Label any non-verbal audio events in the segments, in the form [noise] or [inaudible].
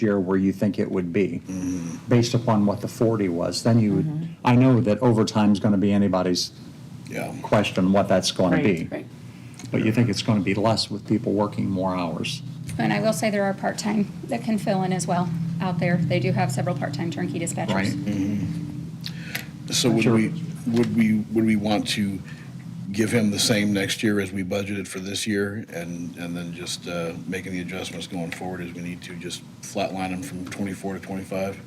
year where you think it would be, Mm-hmm. based upon what the 40 was, then you Mm-hmm. would, I know that overtime's going to be anybody's Yeah. question what that's going to Right, be. right. But you think it's going to be less with people working more hours. And I will say there are part-time that can fill in as well out there. They do have several part-time turnkey dispatchers. Mm-hmm. So would Sure. we, would we, would we want to give him the same next year as we budgeted for this year? And, and then just uh, making the adjustments going forward as we need to, just flatline him from 24 to 25?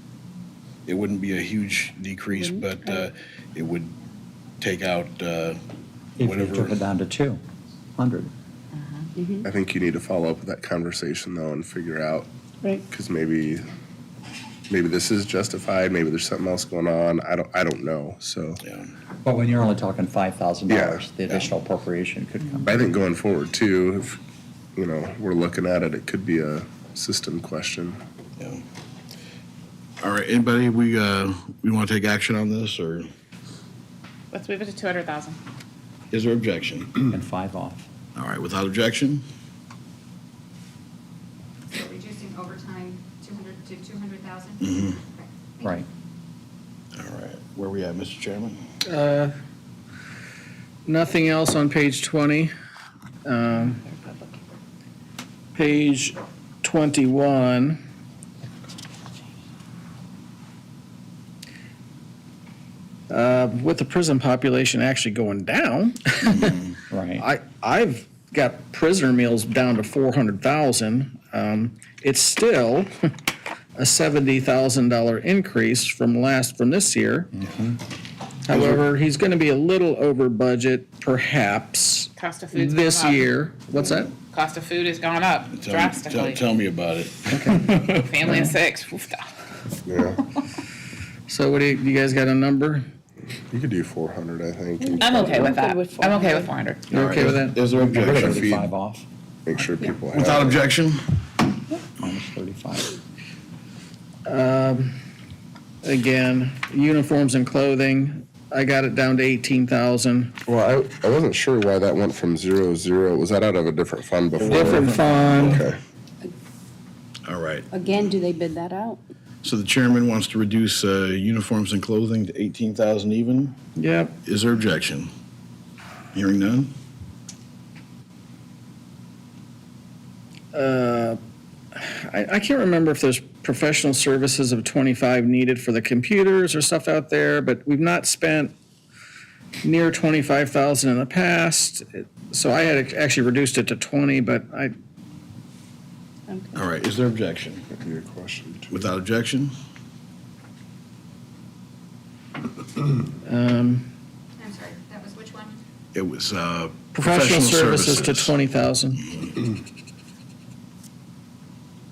It wouldn't be a huge decrease, but uh, it would take out uh, If you took it whatever. down to 200. I think you need to follow up with that conversation though and figure out Right. because maybe maybe this is justified. Maybe there's something else going on. I don't I don't know. So Yeah. But when you're only talking $5,000, Yeah, the additional appropriation could come. I think going forward too, if you know we're looking at it, it could be a system question. yeah. All right, anybody, we, uh, we want to take action on this, or Let's move it to two hundred thousand. is there objection? Mm-hmm. And five off. All right, without objection? So reducing overtime 200 to 200,000? Okay, thank you. Right. All right, where we at, Mr. Chairman? Nothing else on page 20. Um, Page 21. Uh, With the prison population actually going down, Right. I, I've got prisoner meals down to 400,000. Um, It's still [laughs] a $70,000 increase from last, from this year. However, he's going to be a little over budget perhaps Cost of food's this gone up. year. What's that? Cost of food has gone up Tell me- tell- drastically. Tell me about it. Family of six. Oof, da. Yeah, So what do you, you guys got a number? you could do 400. I think. [laughs] and I'm okay with that. I'm okay with four hundred. You okay with that? Is there Minus objection? 35 off, Make sure people have Without objection? minus 35. Again, uniforms and clothing, I got it down to 18,000. Well, I, I wasn't sure why that went from zero zero. Was that out of a different fund before? Different fund. Okay. All right. Again, do they bid that out? So the chairman wants to reduce uh, uniforms and clothing to 18,000 even. Yep. Is there objection? Hearing none? Uh, I, I can't remember if there's professional services of 25 needed for the computers or stuff out there, but we've not spent near 25,000 in the past. It- So I had actually reduced it to 20, but I, All right, is there objection? That'd be a question. too. Without objection? um, I'm sorry, that was which one? It was uh, professional services to 20,000.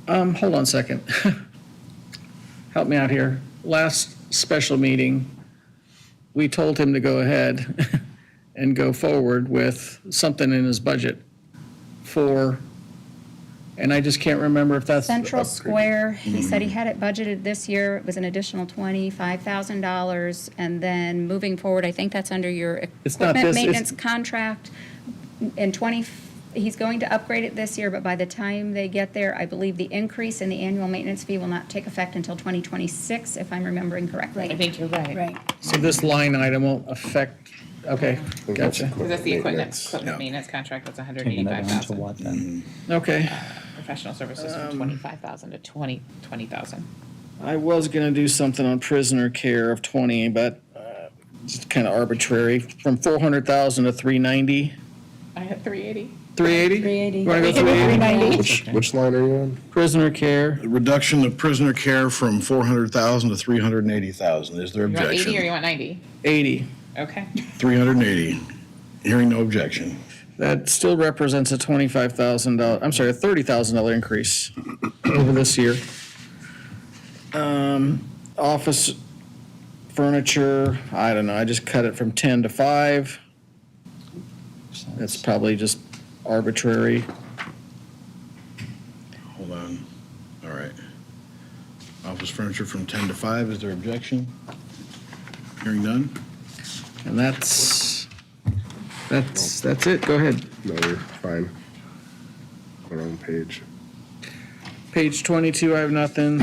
Um, hold on a second. [laughs] Help me out here. Last special meeting, we told him to go ahead [laughs] and go forward with something in his budget for, and I just can't remember if that's. Mm-hmm. Central Square, he said he had it budgeted this year, it was an additional $25,000. And then moving forward, I think that's under your It's equipment not this, it's- maintenance contract. In 20, he's going to upgrade it this year, but by the time they get there, I believe the increase in the annual maintenance fee will not take effect until 2026, if I'm remembering I correctly. think you're right. Right. So this line item won't affect, okay, I think that's gotcha. Because that's the equipment, maintenance. equipment maintenance contract, that's hundred Taking that eighty-five down to thousand. what Mm-hmm. then? Okay. Professional services Um, from twenty-five thousand to twenty, twenty thousand. I was gonna do something on prisoner care of twenty, but uh, it's kind of arbitrary, from four hundred thousand to three ninety. I had three eighty. Three eighty? 380. Wanna go three eighty? Which, which line are you on? Prisoner care, Reduction of prisoner care from 400,000 to 380,000. Is there You want eighty or you objection? want ninety? eighty. Okay. 380. Hearing no objection. That still represents a twenty-five thousand dollar, I'm sorry, a thirty thousand dollar increase over this year. Um, office furniture, I don't know, I just cut it from ten to five. That's probably just arbitrary. Hold on. All right. Office furniture from 10 to 5, is there objection? Hearing none? And that's, that's, that's it, go ahead. No, you're fine. Wrong page. Page 22, I have nothing.